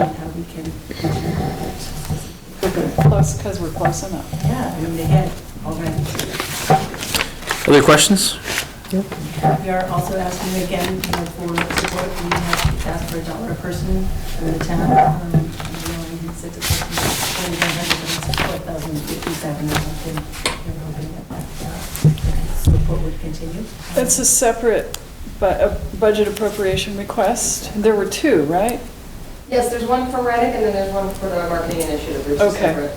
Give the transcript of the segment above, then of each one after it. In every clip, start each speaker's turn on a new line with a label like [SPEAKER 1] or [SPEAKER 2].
[SPEAKER 1] on how we can,
[SPEAKER 2] Close, because we're close enough.
[SPEAKER 1] yeah, I mean, they had already.
[SPEAKER 3] Other questions?
[SPEAKER 1] We are also asking again you know, for support, we have asked for a dollar a person for the town. um, and we only need six of us, and we don't have it, it's 4,057 or something. We're hoping that that Support would continue.
[SPEAKER 2] That's a separate bu- uh, budget appropriation request. There were two, right?
[SPEAKER 4] Yes, there's one for Reddick and then there's one for the marketing initiative, which is
[SPEAKER 2] Okay.
[SPEAKER 4] separate.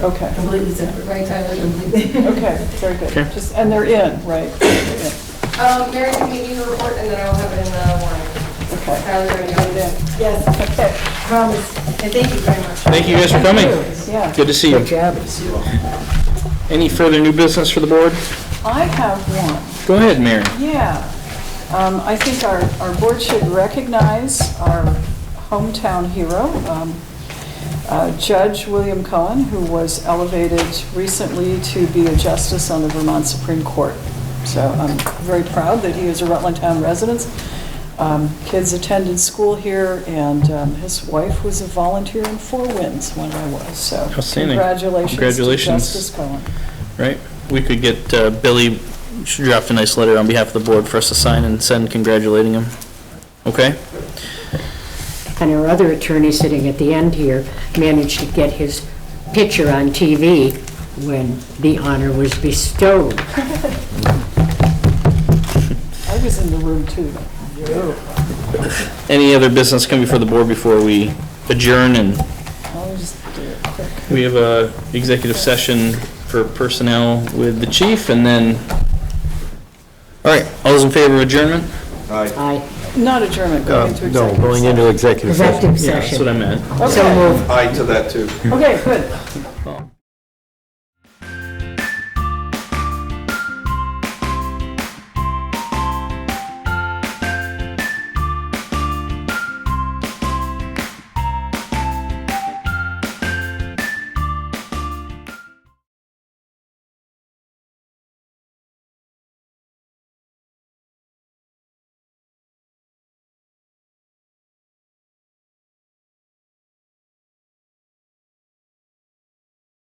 [SPEAKER 2] Okay,
[SPEAKER 1] Completely separate.
[SPEAKER 4] Right, Tyler, completely.
[SPEAKER 2] okay, very good.
[SPEAKER 3] Okay.
[SPEAKER 2] Just And they're in, right? They're in.
[SPEAKER 4] Um, Mary, can you give your report and then I will have it in the warrant.
[SPEAKER 2] Okay.
[SPEAKER 4] Tyler's already got it in.
[SPEAKER 1] Yes, promise, and thank you very much.
[SPEAKER 3] Thank you guys for coming.
[SPEAKER 2] Yeah.
[SPEAKER 3] Good to see you.
[SPEAKER 5] job.
[SPEAKER 3] Any further new business for the board?
[SPEAKER 2] I have one.
[SPEAKER 3] Go ahead, Mary.
[SPEAKER 2] Yeah. Um, I think our, our board should recognize our hometown hero, um, uh, Judge William Cohen, who was elevated recently to be a justice on the Vermont Supreme Court. So I'm very proud that he is a Rutland Town resident. Um, Kids attended school here, and um, his wife was a volunteer in Four Winds when I was, so.
[SPEAKER 3] Outstanding.
[SPEAKER 2] Congratulations to
[SPEAKER 3] Congratulations.
[SPEAKER 2] Justice Cohen.
[SPEAKER 3] Right, we could get uh, Billy, she dropped a nice letter on behalf of the board for us to sign and send congratulating him. Okay?
[SPEAKER 5] And our other attorney sitting at the end here managed to get his picture on TV when the honor was bestowed.
[SPEAKER 2] I was in the room, too.
[SPEAKER 3] Any other business coming before the board before we adjourn and
[SPEAKER 2] I'll just do it quick.
[SPEAKER 3] we have a executive session for personnel with the chief and then, all right, all those in favor of adjournment?
[SPEAKER 5] Aye.
[SPEAKER 2] Not adjournment,
[SPEAKER 6] Uh,
[SPEAKER 2] going into executive
[SPEAKER 6] No,
[SPEAKER 2] session.
[SPEAKER 6] going into executive session.
[SPEAKER 5] Executive
[SPEAKER 3] Yeah, that's what
[SPEAKER 5] session.
[SPEAKER 3] I meant.
[SPEAKER 5] So
[SPEAKER 2] Okay.
[SPEAKER 5] moved.
[SPEAKER 7] Aye to that, too.
[SPEAKER 2] Okay, good.